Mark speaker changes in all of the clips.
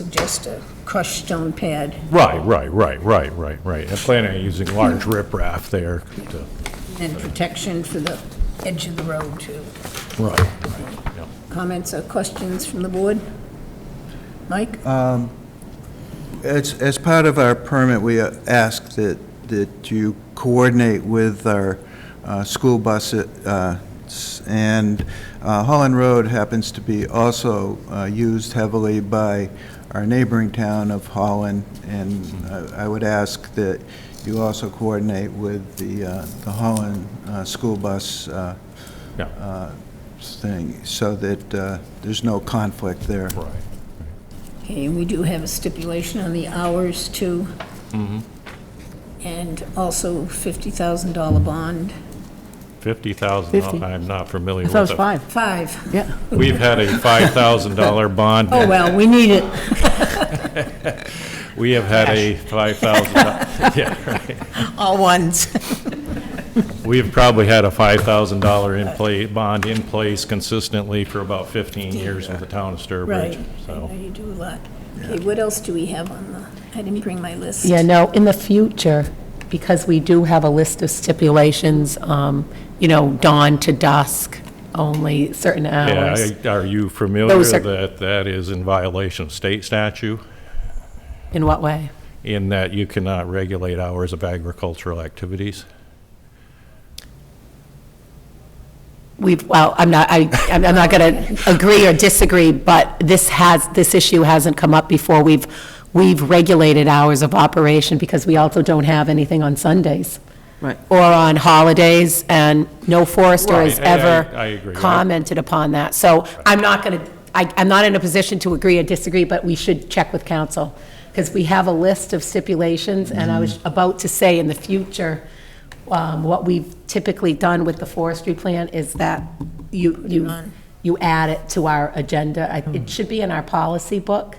Speaker 1: suggest a crushed stone pad.
Speaker 2: Right, right, right, right, right, right. And planning on using large riprap there to,
Speaker 1: And protection for the edge of the road, too.
Speaker 2: right, right, yeah.
Speaker 1: Comments or questions from the board? Mike?
Speaker 3: As, as part of our permit, we uh, ask that, that you coordinate with our uh, school bus, uh, s- and uh, Holland Road happens to be also uh, used heavily by our neighboring town of Holland, and uh, I would ask that you also coordinate with the, uh, the Holland uh, school bus uh,
Speaker 2: Yeah.
Speaker 3: uh, thing, so that uh, there's no conflict there.
Speaker 2: right.
Speaker 1: Okay, and we do have a stipulation on the hours, too. And also $50,000 bond.
Speaker 2: 50,000, I'm not familiar
Speaker 4: I
Speaker 2: with
Speaker 4: thought it was
Speaker 2: that.
Speaker 4: five,
Speaker 1: Five.
Speaker 4: yeah.
Speaker 2: We've had a $5,000 bond.
Speaker 1: Oh, well, we need it.
Speaker 2: We have had a $5,000, yeah, right.
Speaker 1: All ones.
Speaker 2: We've probably had a $5,000 in play, bond in place consistently for about 15 years with the town of
Speaker 1: Right.
Speaker 2: Sturbridge,
Speaker 1: I
Speaker 2: so.
Speaker 1: know you do a lot. Okay, what else do we have on the, I didn't bring my list.
Speaker 5: Yeah, no, in the future, because we do have a list of stipulations, um, you know, dawn to dusk, only certain
Speaker 2: Yeah,
Speaker 5: hours.
Speaker 2: I- are you familiar
Speaker 5: Those are-
Speaker 2: that that is in violation of state statute
Speaker 5: In what way?
Speaker 2: in that you cannot regulate hours of agricultural activities?
Speaker 5: We've, well, I'm not, I, I'm I'm not going to agree or disagree, but this has, this issue hasn't come up before. We've, we've regulated hours of operation because we also don't have anything on Sundays.
Speaker 4: Right.
Speaker 5: Or on holidays, and no forester has
Speaker 2: Right, I- I-
Speaker 5: ever
Speaker 2: I agree. I-
Speaker 5: commented upon that. So I'm not going to, I, I'm not in a position to agree or disagree, but we should check with council, because we have a list of stipulations, and I was about to say in the future, um, what we've typically done with the forestry plan is that you, you, you add it to our agenda. I- It should be in our policy book,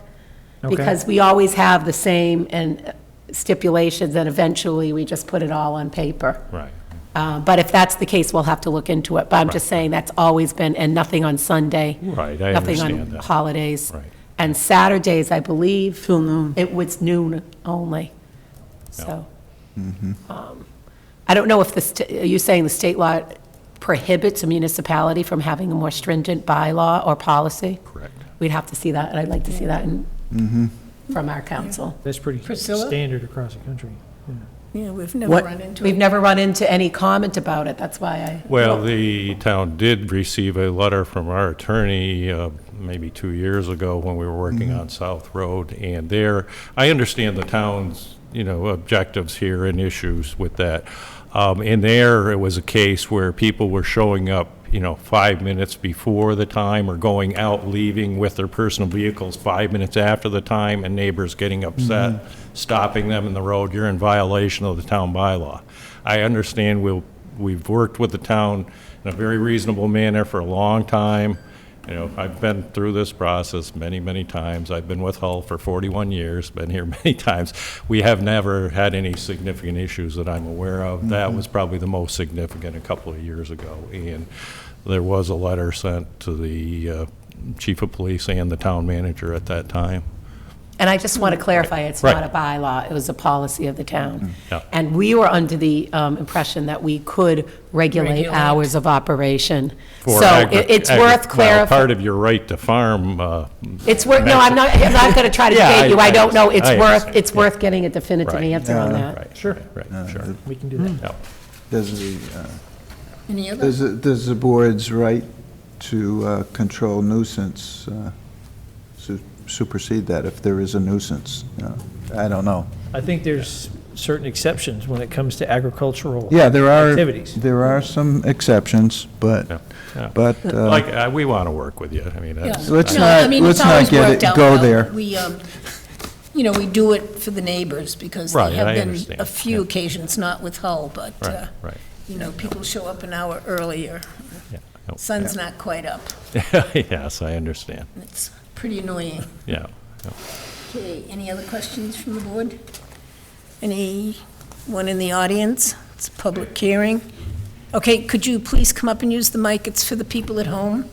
Speaker 5: because we always have the same and uh, stipulations, and eventually we just put it all on paper.
Speaker 2: Right.
Speaker 5: Uh, But if that's the case, we'll have to look into it. But I'm just saying, that's always been, and nothing on Sunday.
Speaker 2: Right, I
Speaker 5: Nothing
Speaker 2: understand
Speaker 5: on
Speaker 2: that.
Speaker 5: holidays.
Speaker 2: Right.
Speaker 5: And Saturdays, I believe,
Speaker 4: Till noon.
Speaker 5: it was noon only, so. Um, I don't know if the, st- are you saying the state law prohibits a municipality from having a more stringent bylaw or policy?
Speaker 2: Correct.
Speaker 5: We'd have to see that, and I'd like to see that in, from our council.
Speaker 6: That's pretty
Speaker 1: Priscilla?
Speaker 6: standard across the country.
Speaker 1: Yeah, we've never
Speaker 5: What-
Speaker 1: run into
Speaker 5: We've
Speaker 1: it.
Speaker 5: never run into any comment about it, that's why I.
Speaker 2: Well, the town did receive a letter from our attorney, uh, maybe two years ago, when we were working on South Road, and there, I understand the town's, you know, objectives here and issues with that. Um, And there, it was a case where people were showing up, you know, five minutes before the time, or going out, leaving with their personal vehicles five minutes after the time, and neighbors getting upset, stopping them in the road, you're in violation of the town bylaw. I understand we'll we've worked with the town in a very reasonable manner for a long time. You know, I've been through this process many, many times. I've been with Hull for 41 years, been here many times. We have never had any significant issues that I'm aware of. That was probably the most significant a couple of years ago. And there was a letter sent to the uh, chief of police and the town manager at that time.
Speaker 5: And I just want to clarify, it's
Speaker 2: Right. Mm-hmm.
Speaker 5: not a bylaw, it was a policy of the town.
Speaker 2: Yeah.
Speaker 5: And we were under the um, impression that we could regulate
Speaker 1: Regulate.
Speaker 5: hours of operation.
Speaker 2: For
Speaker 5: So
Speaker 2: agri-
Speaker 5: it- it's
Speaker 2: agri-
Speaker 5: worth
Speaker 2: well, Part
Speaker 5: clarifying.
Speaker 2: of your right to farm uh,
Speaker 5: It's worth, no, I'm not, I'm not going to try to
Speaker 2: Yeah,
Speaker 5: debate you,
Speaker 2: I-
Speaker 5: I don't know,
Speaker 2: I
Speaker 5: it's worth,
Speaker 2: understand.
Speaker 5: it's worth getting a definitive
Speaker 2: Right.
Speaker 5: answer on that.
Speaker 2: Right, sure, right, sure.
Speaker 6: We can do that.
Speaker 2: Yeah.
Speaker 3: Does the, uh,
Speaker 1: Any other?
Speaker 3: Does, the- does the board's right to uh, control nuisance uh, su- supersede that if there is a nuisance? Uh, I don't know.
Speaker 6: I think there's certain exceptions when it comes to agricultural.
Speaker 3: Yeah, there are,
Speaker 6: Activities.
Speaker 3: there are some exceptions,
Speaker 2: Yeah,
Speaker 3: but,
Speaker 2: yeah.
Speaker 3: but, uh,
Speaker 2: Like, uh, we want to work with you. I mean, that's.
Speaker 3: So let's
Speaker 1: No, I
Speaker 3: not-
Speaker 1: mean, it's
Speaker 3: let's not
Speaker 1: always
Speaker 3: get
Speaker 1: worked
Speaker 3: it-
Speaker 1: out
Speaker 3: go
Speaker 1: well.
Speaker 3: there.
Speaker 1: We, um, you know, we do it for the neighbors because there
Speaker 2: Right,
Speaker 1: have
Speaker 2: I
Speaker 1: been
Speaker 2: understand,
Speaker 1: a few
Speaker 2: yeah.
Speaker 1: occasions, not with Hull, but, uh,
Speaker 2: Right, right.
Speaker 1: you know, people show up an hour earlier.
Speaker 2: yeah, no.
Speaker 1: Sun's not quite up.
Speaker 2: Yes, I understand.
Speaker 1: and It's pretty annoying.
Speaker 2: Yeah.
Speaker 1: Okay, any other questions from the board? Anyone in the audience? It's a public hearing. Okay, could you please come up and use the mic? It's for the people at home.